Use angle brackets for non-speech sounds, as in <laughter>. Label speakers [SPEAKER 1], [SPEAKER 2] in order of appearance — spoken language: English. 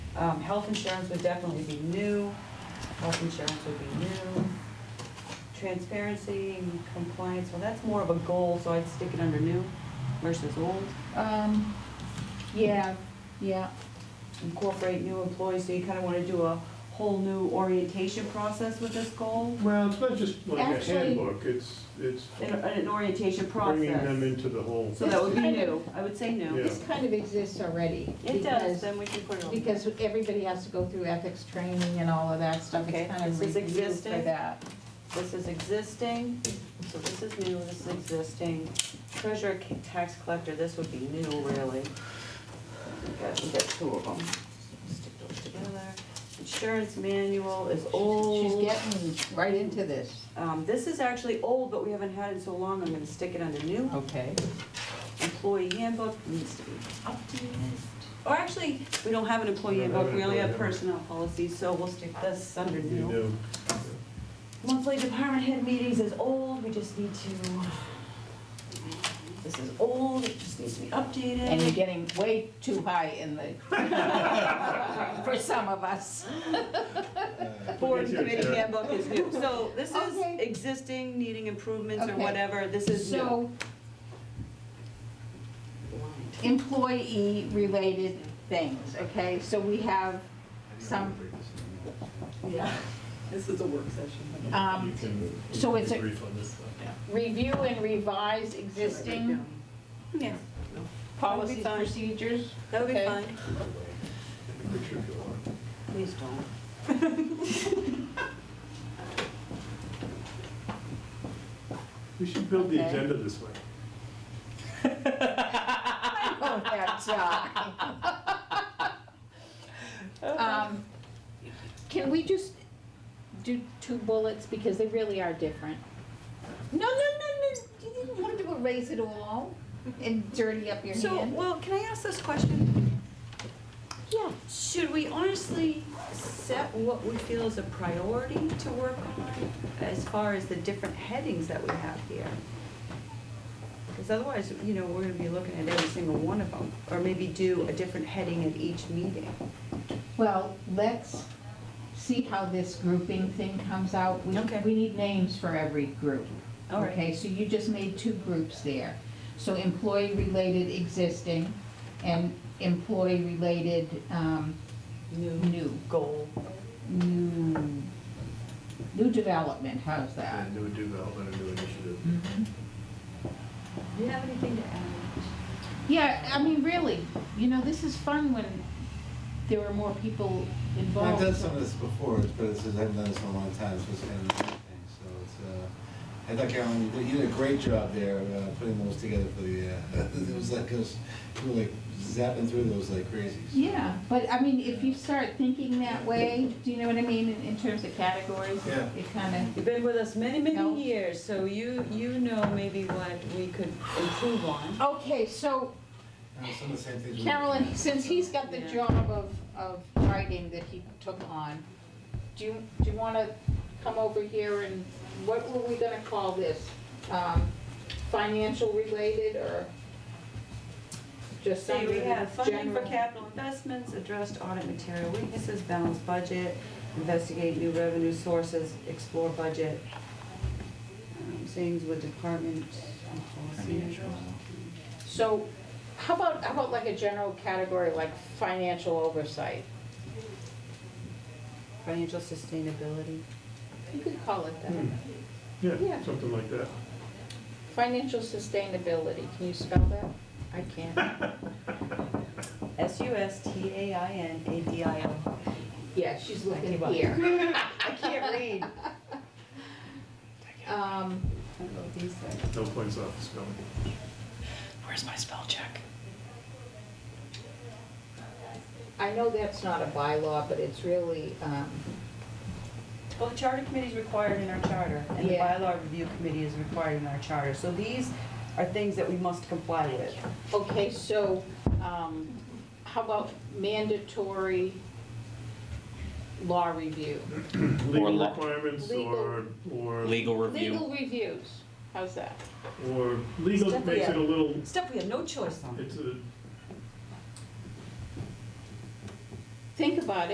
[SPEAKER 1] Um, health insurance would definitely be new, health insurance would be new. Transparency, compliance, well, that's more of a goal, so I'd stick it under new versus old.
[SPEAKER 2] Um, yeah, yeah,
[SPEAKER 1] Incorporate new employees, so you kinda wanna do a whole new orientation process with this goal,
[SPEAKER 3] Well, it's not just like a
[SPEAKER 2] Actually-
[SPEAKER 3] handbook, it's, it's
[SPEAKER 1] an, an orientation
[SPEAKER 3] bringing them
[SPEAKER 1] process.
[SPEAKER 3] into the whole.
[SPEAKER 1] So that would be new, I would say new.
[SPEAKER 3] Yeah.
[SPEAKER 2] this kind of exists already.
[SPEAKER 1] It does,
[SPEAKER 2] because-
[SPEAKER 1] then we can put it on.
[SPEAKER 2] Because everybody has to go through ethics training and all of that stuff.
[SPEAKER 1] Okay,
[SPEAKER 2] It's kind of
[SPEAKER 1] this is
[SPEAKER 2] reviewed for
[SPEAKER 1] existing.
[SPEAKER 2] that.
[SPEAKER 1] This is existing, so this is new, this is existing. Treasurer, ca- tax collector, this would be new, really. We got, we got two of them. Stick those together. Insurance manual is
[SPEAKER 2] She's
[SPEAKER 1] old.
[SPEAKER 2] getting right into this.
[SPEAKER 1] Um, this is actually old, but we haven't had it so long, I'm gonna stick it under new.
[SPEAKER 2] Okay.
[SPEAKER 1] Employee handbook needs to be updated. Or actually, we don't have an employee
[SPEAKER 3] We don't have
[SPEAKER 1] handbook, we only
[SPEAKER 3] an
[SPEAKER 1] have
[SPEAKER 3] employee
[SPEAKER 1] personnel
[SPEAKER 3] handbook.
[SPEAKER 1] policies, so we'll stick this under
[SPEAKER 3] You
[SPEAKER 1] new.
[SPEAKER 3] know,
[SPEAKER 1] Monthly department head meetings is old, we just need to, this is old, it just needs to be
[SPEAKER 2] And you're
[SPEAKER 1] updated.
[SPEAKER 2] getting way too high in the, <laughs> for some of us.
[SPEAKER 1] Board and
[SPEAKER 3] Yes, yes,
[SPEAKER 1] committee
[SPEAKER 3] sure.
[SPEAKER 1] handbook is new, so this is
[SPEAKER 2] Okay.
[SPEAKER 1] existing, needing improvements or
[SPEAKER 2] Okay.
[SPEAKER 1] whatever, this is new.
[SPEAKER 2] So employee-related things, okay? So we have some,
[SPEAKER 1] Yeah, <laughs> this is a work session.
[SPEAKER 2] um,
[SPEAKER 4] You can-
[SPEAKER 2] so it's a-
[SPEAKER 4] Brief on this stuff.
[SPEAKER 2] review and revise existing
[SPEAKER 1] Yeah,
[SPEAKER 2] policies,
[SPEAKER 1] fine.
[SPEAKER 2] procedures.
[SPEAKER 1] that would be
[SPEAKER 2] Okay.
[SPEAKER 1] fine.
[SPEAKER 4] Picture if you want.
[SPEAKER 1] Please don't.
[SPEAKER 3] We should build the
[SPEAKER 2] Okay.
[SPEAKER 3] agenda this way.
[SPEAKER 1] <laughs>
[SPEAKER 2] I don't have time. <laughs> Um, Can we just do two bullets, because they really are different? No, no, no, no, you didn't want to erase it all and dirty up your
[SPEAKER 1] So,
[SPEAKER 2] hand.
[SPEAKER 1] well, can I ask this question?
[SPEAKER 2] Yeah.
[SPEAKER 1] Should we honestly set what we feel is a priority to work on as far as the different headings that we have here? Because otherwise, you know, we're gonna be looking at every single one of them, or maybe do a different heading at each meeting.
[SPEAKER 2] Well, let's see how this grouping thing comes out. We-
[SPEAKER 1] Okay.
[SPEAKER 2] We need names for every group.
[SPEAKER 1] All right.
[SPEAKER 2] Okay, so you just made two groups there. So employee-related existing and employee-related um,
[SPEAKER 1] New
[SPEAKER 2] new,
[SPEAKER 1] goal.
[SPEAKER 2] new, new development, how's that?
[SPEAKER 4] And new development, a new initiative.
[SPEAKER 1] Do you have anything to add?
[SPEAKER 2] Yeah, I mean, really, you know, this is fun when there are more people
[SPEAKER 5] I've
[SPEAKER 2] involved.
[SPEAKER 5] done some of this before, but it's just, I haven't done this in a long time, so it's kind of a new thing, so it's, uh, I thought Carolyn, you did- you did a great job there, uh, putting those together for the, uh, <laughs> it was like, us you were like zapping through those like crazy. so.
[SPEAKER 2] Yeah, but I mean, if you start thinking that way, do you know what I mean, in, in terms of categories?
[SPEAKER 5] Yeah.
[SPEAKER 2] It kinda,
[SPEAKER 1] You've been with us many,
[SPEAKER 2] No.
[SPEAKER 1] many years, so you, you know maybe what we could improve on.
[SPEAKER 2] okay, so
[SPEAKER 5] Uh, Some of the same things. we-
[SPEAKER 2] Carolyn, since he's got the
[SPEAKER 1] Yeah.
[SPEAKER 2] job of, of writing that he took on, do you, do you wanna come over here and, what were we gonna call this? Um, financial related or just
[SPEAKER 1] So
[SPEAKER 2] something
[SPEAKER 1] we have funding for
[SPEAKER 2] general?
[SPEAKER 1] capital investments, addressed audit material weaknesses, balanced budget, investigate new revenue sources, explore budget, um, things with department and policy.
[SPEAKER 2] So, how about, how about like a general category, like financial oversight?
[SPEAKER 1] Financial sustainability.
[SPEAKER 2] You could call it that.
[SPEAKER 3] Hmm.
[SPEAKER 2] Yeah.
[SPEAKER 3] Yeah, something like that.
[SPEAKER 2] Financial sustainability, can you spell that? I can't.
[SPEAKER 1] S U S T A I N A D I O.
[SPEAKER 2] Yeah, she's looking
[SPEAKER 1] give up.
[SPEAKER 2] here.
[SPEAKER 1] <laughs> I can't read.
[SPEAKER 2] Um,
[SPEAKER 1] I don't know what these are.
[SPEAKER 3] No points off the spelling.
[SPEAKER 6] Where's my spell check?
[SPEAKER 2] I know that's not a bylaw, but it's really, um,
[SPEAKER 1] Well, the charter committee is required in our charter, and the
[SPEAKER 2] Yeah.
[SPEAKER 1] bylaw review committee is required in our charter. So these are things that we must comply with.
[SPEAKER 2] okay, so, um, how about mandatory law review?
[SPEAKER 3] Legal
[SPEAKER 7] le-
[SPEAKER 3] requirements or,
[SPEAKER 2] Legal-
[SPEAKER 3] or,
[SPEAKER 7] Legal
[SPEAKER 2] Legal
[SPEAKER 7] review.
[SPEAKER 2] reviews, how's that?
[SPEAKER 3] or legal
[SPEAKER 1] Stuff
[SPEAKER 3] makes
[SPEAKER 1] that-
[SPEAKER 3] it a little,
[SPEAKER 1] Stuff we have no choice on.
[SPEAKER 3] it's a,
[SPEAKER 2] think about it.